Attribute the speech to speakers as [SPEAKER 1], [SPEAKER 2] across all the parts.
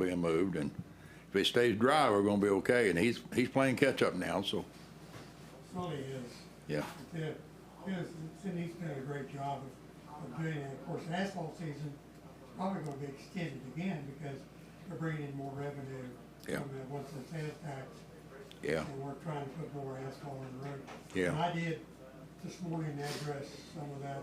[SPEAKER 1] being moved, and if it stays dry, we're gonna be okay, and he's, he's playing catch-up now, so,
[SPEAKER 2] Really is.
[SPEAKER 1] yeah.
[SPEAKER 2] Did, his, Cindy's done a great job of, of doing it. Of course, asphalt season is probably gonna be extended again because they're bringing in more revenue
[SPEAKER 1] Yeah.
[SPEAKER 2] from the, once the sales tax.
[SPEAKER 1] Yeah.
[SPEAKER 2] And we're trying to put more asphalt on the road.
[SPEAKER 1] Yeah.
[SPEAKER 2] And I did this morning address some of that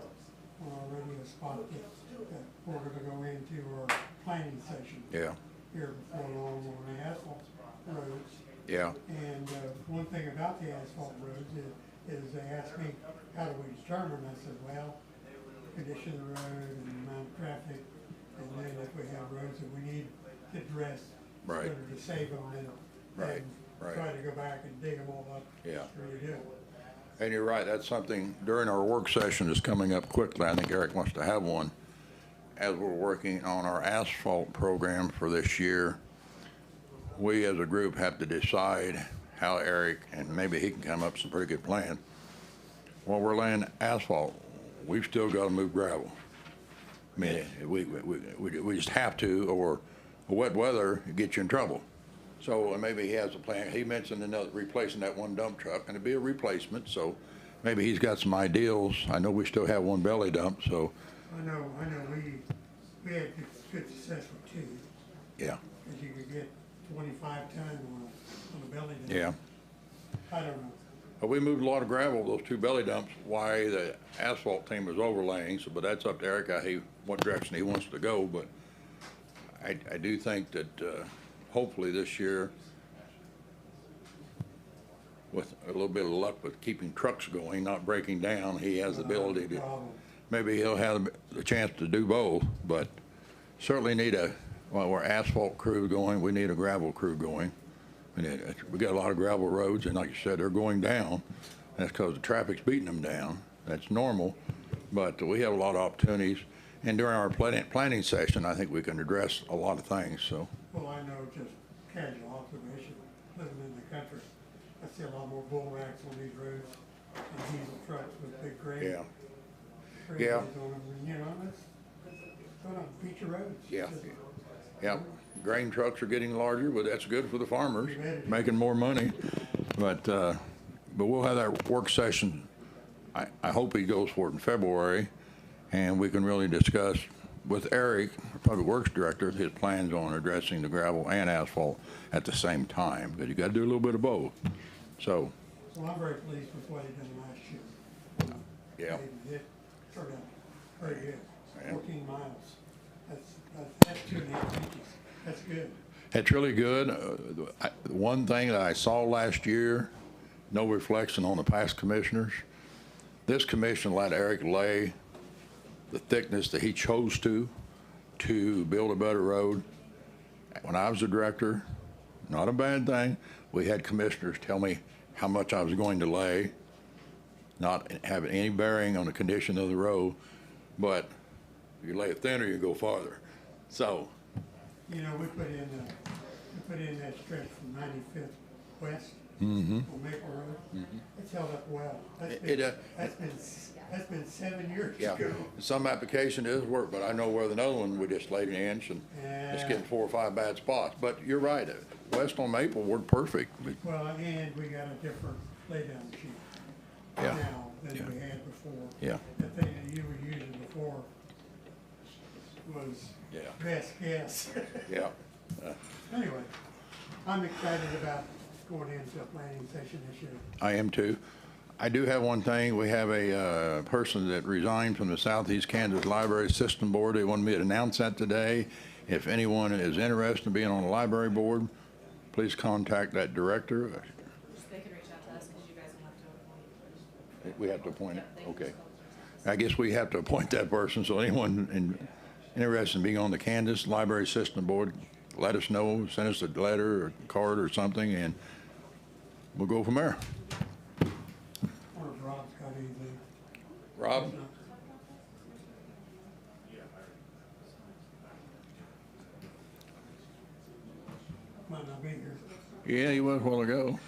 [SPEAKER 2] on our radio spot that, that we're gonna go into our planning session.
[SPEAKER 1] Yeah,
[SPEAKER 2] Here before long on the asphalt roads.
[SPEAKER 1] yeah,
[SPEAKER 2] And uh, one thing about the asphalt roads is, is they asked me, how do we determine? I said, well, condition of the road and amount of traffic. And then if we have roads that we need to address,
[SPEAKER 1] Right.
[SPEAKER 2] better to save them than,
[SPEAKER 1] Right,
[SPEAKER 2] than
[SPEAKER 1] right.
[SPEAKER 2] try to go back and dig them all up.
[SPEAKER 1] Yeah.
[SPEAKER 2] and redo it.
[SPEAKER 1] and you're right, that's something during our work session that's coming up quickly, I think Eric wants to have one. As we're working on our asphalt program for this year, we as a group have to decide how Eric, and maybe he can come up with some pretty good plan. While we're laying asphalt, we've still gotta move gravel. I mean, we, we, we, we just have to, or wet weather gets you in trouble. So, and maybe he has a plan, he mentioned another, replacing that one dump truck, and it'd be a replacement, so maybe he's got some ideals. I know we still have one belly dump, so,
[SPEAKER 2] I know, I know, we, we had good- good success with two,
[SPEAKER 1] yeah,
[SPEAKER 2] because you could get twenty-five ton on a, on a belly dump.
[SPEAKER 1] yeah.
[SPEAKER 2] I don't know.
[SPEAKER 1] But we moved a lot of gravel, those two belly dumps, why the asphalt team was overlaying, so, but that's up to Eric, I, he, what direction he wants to go, but I, I do think that, uh, hopefully this year, with a little bit of luck with keeping trucks going, not breaking down, he has the ability to,
[SPEAKER 2] Problem.
[SPEAKER 1] maybe he'll have the chance to do both, but certainly need a, well, we're asphalt crew going, we need a gravel crew going. And it, it- we got a lot of gravel roads, and like you said, they're going down. That's because the traffic's beating them down. That's normal, but we have a lot of opportunities. And during our planning, planning session, I think we can address a lot of things, so,
[SPEAKER 2] Well, I know just casual observation, living in the country, I see a lot more bull racks on these roads and diesel trucks with big grain.
[SPEAKER 1] yeah.
[SPEAKER 2] grain
[SPEAKER 1] yeah.
[SPEAKER 2] bins on them, and, You know, that's, that's on feature roads.
[SPEAKER 1] Yeah.
[SPEAKER 2] Just-
[SPEAKER 1] Yeah, grain trucks are getting larger, but that's good for the farmers, making more money. But, uh, but we'll have that work session. I, I hope he goes for it in February, and we can really discuss with Eric, our Public Works Director, his plans on addressing the gravel and asphalt at the same time, because you gotta do a little bit of both. So,
[SPEAKER 2] So I'm very pleased with what he done last year.
[SPEAKER 1] Yeah.
[SPEAKER 2] It- It turned out very good,
[SPEAKER 1] Yeah.
[SPEAKER 2] fourteen miles, that's, that's, that's two and a half inches, that's good.
[SPEAKER 1] It's really good. Uh, I- One thing that I saw last year, no reflection on the past commissioners, this commission let Eric lay the thickness that he chose to, to build a better road. When I was the director, not a bad thing, we had commissioners tell me how much I was going to lay, not having any bearing on the condition of the road, but you lay it thinner, you go farther. So,
[SPEAKER 2] You know, we put in, uh, we put in that stretch from ninety-fifth west. On Maple Road. It's held up well. That's
[SPEAKER 1] Mm-hmm. It-
[SPEAKER 2] been,
[SPEAKER 1] it, uh,
[SPEAKER 2] that's been, s- that's been seven years
[SPEAKER 1] Yeah,
[SPEAKER 2] ago.
[SPEAKER 1] some application is work, but I know where another one, we just laid an inch and it's getting four or five bad spots. But you're right, uh, west on Maple, we're perfect. We-
[SPEAKER 2] Well, and we got a different laydown sheet
[SPEAKER 1] Yeah,
[SPEAKER 2] now
[SPEAKER 1] yeah.
[SPEAKER 2] than we had before.
[SPEAKER 1] Yeah.
[SPEAKER 2] The thing that you were using before was
[SPEAKER 1] Yeah.
[SPEAKER 2] best guess.
[SPEAKER 1] Yeah,
[SPEAKER 2] Anyway, I'm excited about going into a planning session this year.
[SPEAKER 1] I am too. I do have one thing, we have a, uh, person that resigned from the Southeast Kansas Library System Board. They wanted me to announce that today. If anyone is interested in being on the library board, please contact that director. Uh,
[SPEAKER 3] They can reach out to us because you guys will have to appoint.
[SPEAKER 1] We have to appoint it,
[SPEAKER 3] They can
[SPEAKER 1] okay.
[SPEAKER 3] just go through us.
[SPEAKER 1] I guess we have to appoint that person, so anyone in- interested in being on the Kansas Library System Board, let us know, send us a letter or card or something, and we'll go from there.
[SPEAKER 2] I wonder if Rob's got anything.
[SPEAKER 1] Rob?
[SPEAKER 2] Might not be here.
[SPEAKER 1] Yeah, he was a while ago.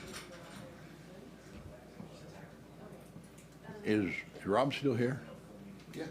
[SPEAKER 1] Is is Rob still here?
[SPEAKER 4] Yeah,